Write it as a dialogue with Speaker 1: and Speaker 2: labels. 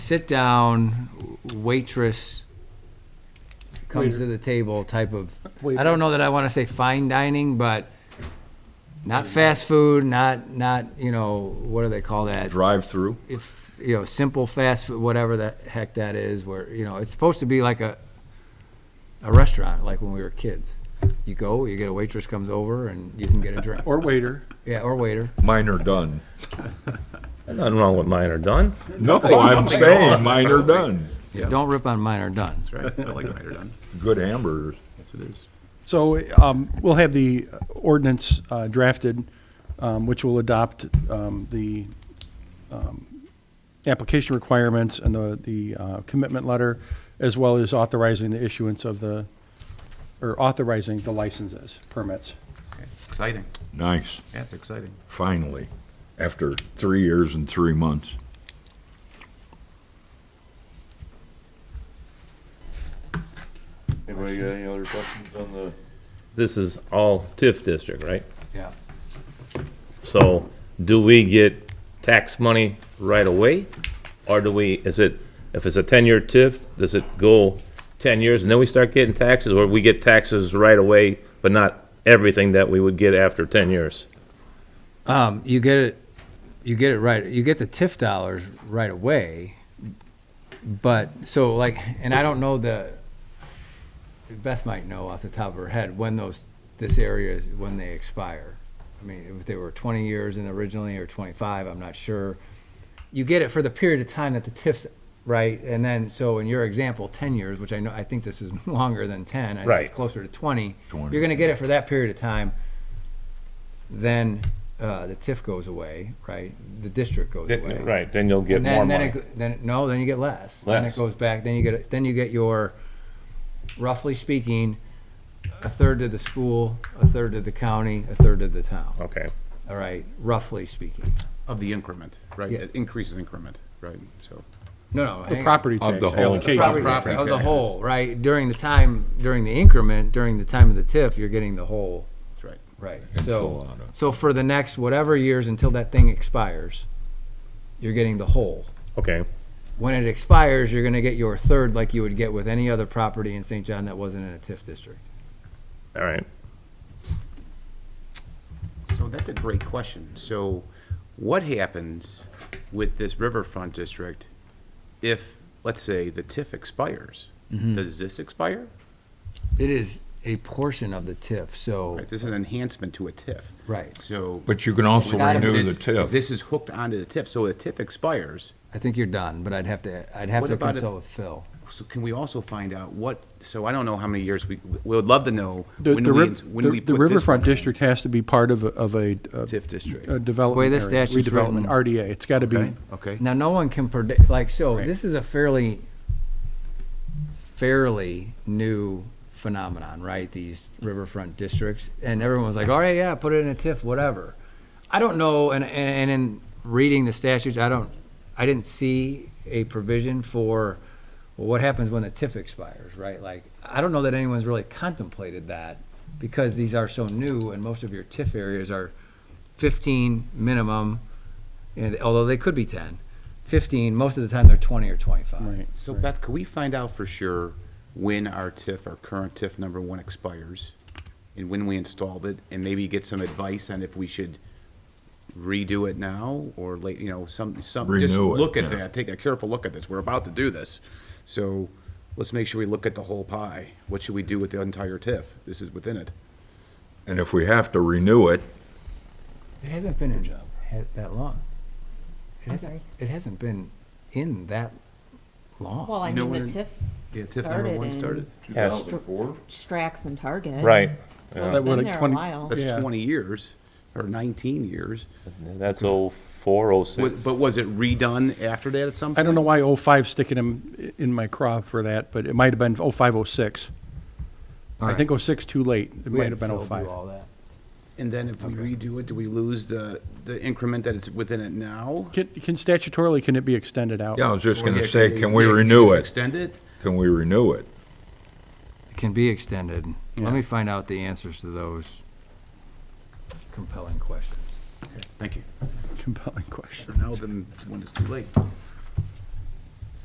Speaker 1: sit down waitress comes to the table type of, I don't know that I want to say fine dining, but not fast food, not, not, you know, what do they call that?
Speaker 2: Drive-through?
Speaker 1: If, you know, simple fast food, whatever the heck that is, where, you know, it's supposed to be like a, a restaurant, like when we were kids. You go, you get a waitress comes over and you can get a drink.
Speaker 3: Or waiter.
Speaker 1: Yeah, or waiter.
Speaker 2: Mine are done.
Speaker 4: Nothing wrong with mine are done.
Speaker 2: No, I'm saying mine are done.
Speaker 1: Don't rip on mine or done.
Speaker 5: Right, I like Ryder Dunn.
Speaker 2: Good hamburgers.
Speaker 5: Yes, it is.
Speaker 3: So um, we'll have the ordinance uh, drafted, um, which will adopt um, the um, application requirements and the, the uh, commitment letter, as well as authorizing the issuance of the, or authorizing the licenses, permits.
Speaker 5: Okay, Exciting.
Speaker 2: Nice,
Speaker 5: Yeah, it's exciting.
Speaker 2: finally, after three years and three months.
Speaker 6: Anybody got any other questions on the?
Speaker 4: This is all TIF district, right?
Speaker 1: Yeah.
Speaker 4: So do we get tax money right away? Or do we, is it, if it's a ten-year TIF, does it go ten years and then we start getting taxes? Or we get taxes right away, but not everything that we would get after ten years?
Speaker 1: Um, you get it, you get it right. You get the TIF dollars right away. But so like, and I don't know the. Beth might know off the top of her head when those this area is when they expire. I mean, if they were 20 years in originally or 25, I'm not sure. You get it for the period of time that the TIFs right, and then so in your example, 10 years, which I know I think this is longer than 10. I think
Speaker 4: Right.
Speaker 1: it's closer to 20.
Speaker 2: 20.
Speaker 1: You're going to get it for that period of time. Then uh, the TIF goes away, right? The district goes away.
Speaker 4: Right, then you'll get
Speaker 1: And
Speaker 4: more
Speaker 1: then, then,
Speaker 4: money.
Speaker 1: it, go- then, no, then you get less. Then it
Speaker 4: Less.
Speaker 1: goes back, then you get, then you get your, roughly speaking, a third to the school, a third to the county, a third to the town,
Speaker 4: Okay,
Speaker 1: all right, roughly speaking.
Speaker 5: Of the increment, right?
Speaker 1: Yeah.
Speaker 5: Increase in increment, right? So,
Speaker 1: No, no.
Speaker 3: The
Speaker 1: hang on.
Speaker 3: property
Speaker 2: Of
Speaker 3: tax
Speaker 2: the whole-
Speaker 3: allocation.
Speaker 1: Property
Speaker 5: Property
Speaker 1: of the
Speaker 5: taxes.
Speaker 1: whole, right? During the time, during the increment, during the time of the TIF, you're getting the whole,
Speaker 5: that's right.
Speaker 1: right?
Speaker 2: And
Speaker 1: So,
Speaker 2: so on.
Speaker 1: so for the next whatever years until that thing expires, you're getting the whole.
Speaker 4: okay,
Speaker 1: when it expires, you're gonna get your third like you would get with any other property in St. John that wasn't in a TIF district.
Speaker 4: all right.
Speaker 5: So that's a great question. So what happens with this riverfront district if, let's say, the TIF expires?
Speaker 2: Mm-hmm.
Speaker 5: Does this expire?
Speaker 1: It is a portion of the TIF, so,
Speaker 5: Right, this is an enhancement to a TIF.
Speaker 1: Right.
Speaker 5: So.
Speaker 2: But you can also
Speaker 1: Without
Speaker 2: renew the
Speaker 5: This-
Speaker 2: TIF.
Speaker 5: This is hooked onto the TIF. So the TIF expires.
Speaker 1: I think you're done, but I'd have to, I'd have
Speaker 5: What
Speaker 1: to
Speaker 5: about if-
Speaker 1: consult with Phil.
Speaker 5: So can we also find out what, so I don't know how many years we, we would love to know
Speaker 3: The,
Speaker 5: when
Speaker 3: the
Speaker 5: we,
Speaker 3: riv-
Speaker 5: when we
Speaker 3: the-
Speaker 5: put
Speaker 3: the
Speaker 5: this
Speaker 3: riverfront
Speaker 5: one in.
Speaker 3: district has to be part of, a- of a. uh,
Speaker 5: TIF district.
Speaker 3: A development
Speaker 1: The way the
Speaker 3: area,
Speaker 1: statute's
Speaker 3: redevelopment,
Speaker 1: written.
Speaker 3: RDA, it's gotta be,
Speaker 5: Okay, okay.
Speaker 1: Now, no one can predict, like, so,
Speaker 5: Right.
Speaker 1: this is a fairly, fairly new phenomenon, right? These riverfront districts, and everyone's like, all right, yeah, put it in a TIF, whatever. I don't know, and, and and in reading the statutes, I don't, I didn't see a provision for, well, what happens when the TIF expires, right? Like, I don't know that anyone's really contemplated that, because these are so new, and most of your TIF areas are fifteen minimum, and although they could be ten, fifteen, most of the time they're twenty or twenty-five.
Speaker 3: right.
Speaker 5: So Beth, could we find out for sure when our TIF, our current TIF number one expires? And when we installed it, and maybe get some advice on if we should redo it now or late, you know, some, some, just
Speaker 2: Renew it,
Speaker 5: look at
Speaker 2: yeah.
Speaker 5: that, take a careful look at this. We're about to do this. So let's make sure we look at the whole pie. What should we do with the entire TIF? This is within it.
Speaker 2: And if we have to renew it,
Speaker 1: It hasn't been in ha- that long. It
Speaker 7: I'm
Speaker 1: hasn't-
Speaker 7: sorry?
Speaker 1: It hasn't been in that long.
Speaker 7: Well, I
Speaker 5: You know
Speaker 7: mean, the
Speaker 5: when it-
Speaker 7: TIF
Speaker 5: Yeah, TIF number
Speaker 7: Started
Speaker 5: one
Speaker 7: in-
Speaker 5: started.
Speaker 6: Two
Speaker 4: Yes.
Speaker 6: thousand four?
Speaker 7: Strax and Target.
Speaker 4: Right,
Speaker 7: So it's
Speaker 3: That
Speaker 7: been
Speaker 3: would've
Speaker 7: there a
Speaker 3: 20
Speaker 7: while.
Speaker 5: That's
Speaker 3: Yeah.
Speaker 5: twenty years or nineteen years.
Speaker 4: that's oh four, oh
Speaker 5: Wa-
Speaker 4: six.
Speaker 5: But was it redone after that at some point?
Speaker 3: I don't know why '05 sticking him in my craw for that, but it might have been '05, '06. I
Speaker 1: Alright.
Speaker 3: think '06 too late. It
Speaker 1: We
Speaker 3: might
Speaker 1: had
Speaker 3: have been
Speaker 1: Phil do
Speaker 3: '05.
Speaker 1: all that.
Speaker 5: And then if we redo it, do we lose the, the increment that it's within it now?
Speaker 3: Can, can statutorily, can it be extended out?
Speaker 2: yeah, I was just
Speaker 5: Or
Speaker 2: gonna
Speaker 5: yeah,
Speaker 2: say, can we
Speaker 5: yeah,
Speaker 2: renew
Speaker 5: just
Speaker 2: it?
Speaker 5: Extend it?
Speaker 2: Can we renew it?
Speaker 1: It Can be extended.
Speaker 3: Yeah.
Speaker 1: Let me find out the answers to those compelling questions.
Speaker 5: Thank you.
Speaker 3: Compelling question.
Speaker 5: Now then, when it's too late.